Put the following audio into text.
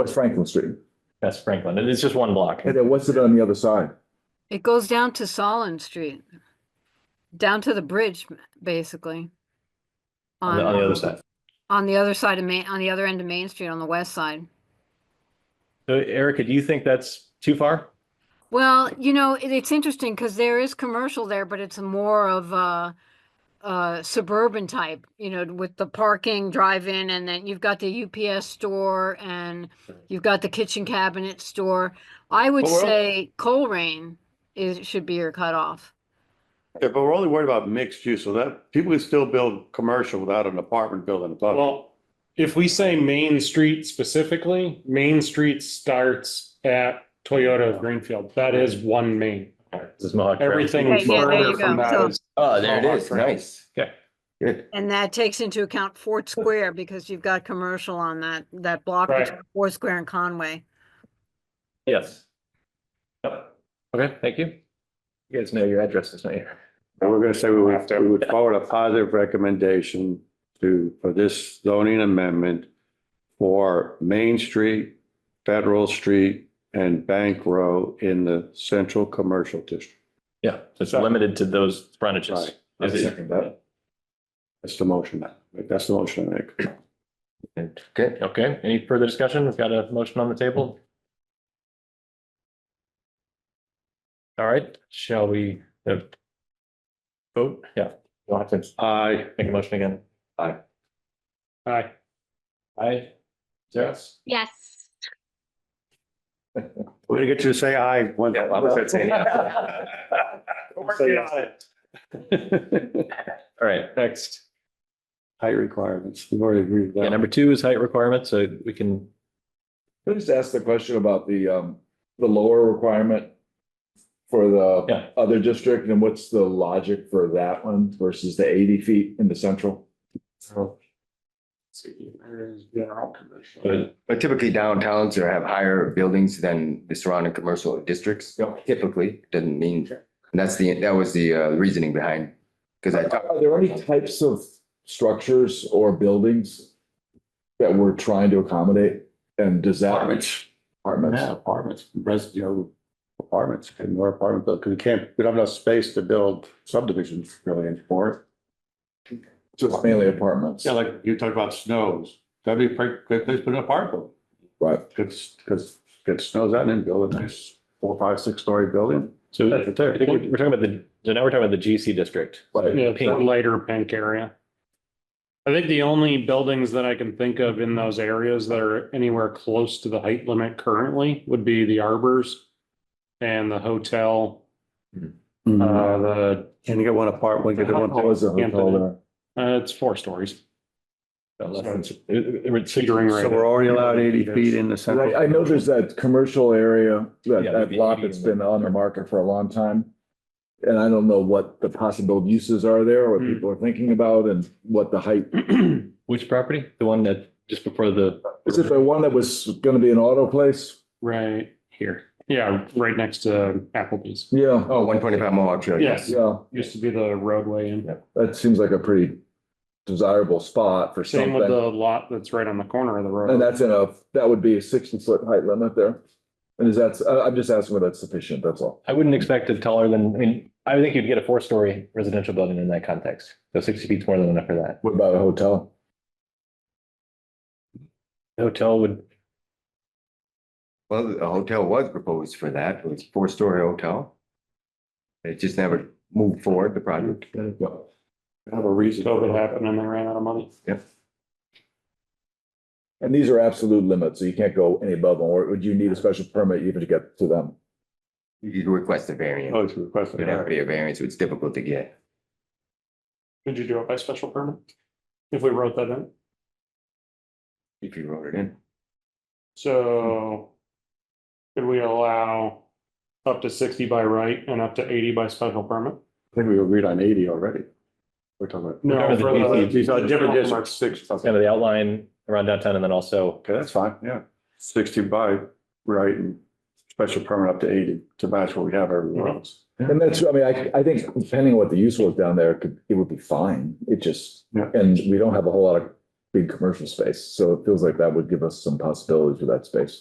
What's Franklin Street? That's Franklin. It is just one block. And then what's it on the other side? It goes down to Solon Street, down to the bridge, basically. On the, on the um, other side. On the other side of Main, on the other end of Main Street, on the west side. So Erica, do you think that's too far? Well, you know, it, it's interesting because there is commercial there, but it's more of a, a suburban type, you know, with the parking, drive-in, and then you've got the UPS store and you've got the kitchen cabinet store. I would Well, we're al- say Colerain is, should be your cutoff. Yeah, but we're only worried about mixed use, so that people can still build commercial without an apartment building above. it. Well, if we say Main Street specifically, Main Street starts at Toyota of Greenfield. That is one main. This is Mohawk. Trail. Everything Okay, yeah, there you further from go. that So- is. Oh, there it Mohawk is. Trail. Nice. Okay. Good. And that takes into account Fort Square because you've got commercial on that, that block Right. between Fort Square and Conway. Yes. Yep. Okay, thank you. You guys know your addresses, don't you? And we're gonna say we would, we would forward a positive recommendation to, for this zoning amendment for Main Street, Federal Street, and Bank Row in the central commercial district. Yeah, so it's limited to those frontages. Right. Is it- That's the motion. That's the motion I make. Good. Okay, any further discussion? We've got a motion on the table. All right, shall we uh, vote? Yeah, we'll have to Aye. make a motion again. Aye. Aye. Yes. Yes. We're gonna get you to say aye. one- Yeah, I was gonna say, yeah. Say yes. All right, next. Height requirements. We've already agreed Yeah, with number that. two is height requirement, so we can, Can I just ask the question about the, um, the lower requirement for Yeah. the other district and what's the logic for that one versus the eighty feet in the central? but But typically downtowns are have higher buildings than the surrounding commercial districts. Yep. Typically, doesn't mean, and that's the, that was the uh, reasoning behind, because I talked. Are there any types of structures or buildings that we're trying to accommodate? And does that? Apartments. Apartments. Yeah, apartments, res, you know, apartments, and more apartment, because we can't, we don't have enough space to build subdivisions really anymore. Just mainly apartments, Yeah, like you talked about snows, that'd be a pretty good place to put an apartment, right? because, because it snows out and then build a nice four, five, six story building. so I think we're we're talking about the, so now we're talking about the GC district. Yeah, the Pink. lighter pink area. I think the only buildings that I can think of in those areas that are anywhere close to the height limit currently would be the arbors and the hotel, uh, the, Mm-hmm. Can you get one apartment, get the one. What was the hotel there? uh, it's four stories. Considering Considering right. already in the And I, I know there's that commercial area, that, Yeah, that the lot beauty that's and the- been on the market for a long time. And I don't know what the possible uses are there, what Hmm. people are thinking about and what the height. Which property? The one that just before the. Is it the one that was gonna be an auto place? Right here. Yeah, right next to Applebee's. Yeah, Oh, one twenty-five Mohawk Trail. Yes, yeah, used to be the roadway and that seems like a pretty desirable spot for same with the something. lot that's right on the corner of the road. And that's in a, that would be a sixty foot height limit there. And is that, I, I'm just asking whether that's sufficient, that's all. I wouldn't expect it taller than, I mean, I would think you'd get a four-story residential building in that context. So sixty feet's more than enough for that. What about a hotel? Hotel would, Well, a hotel was proposed for that. It was a four-story hotel. It just never moved forward, the project. Have a reason. COVID happened and they ran out of money. And these are absolute limits, so you can't go any above them, or would you need a special permit even to get to them? You could request a variance. Oh, it's requested. It'd have to be a variance, so it's difficult to get. Could you do it by special permit? If we wrote that in? If you wrote it in. So could we allow up to sixty by right and up to eighty by special permit? I think we agreed on eighty already. We're talking about. No, for the- uh, These are different districts, six. kind of the outline around downtown and then also, Okay, that's fine, yeah. Sixty by right and special permit up to eighty to match what we have everywhere else. And that's, I mean, I, I think depending on what the use was down there, it could, it would be fine. It just, Yeah. and we don't have a whole lot of big commercial space. So it feels like that would give us some possibilities with that space.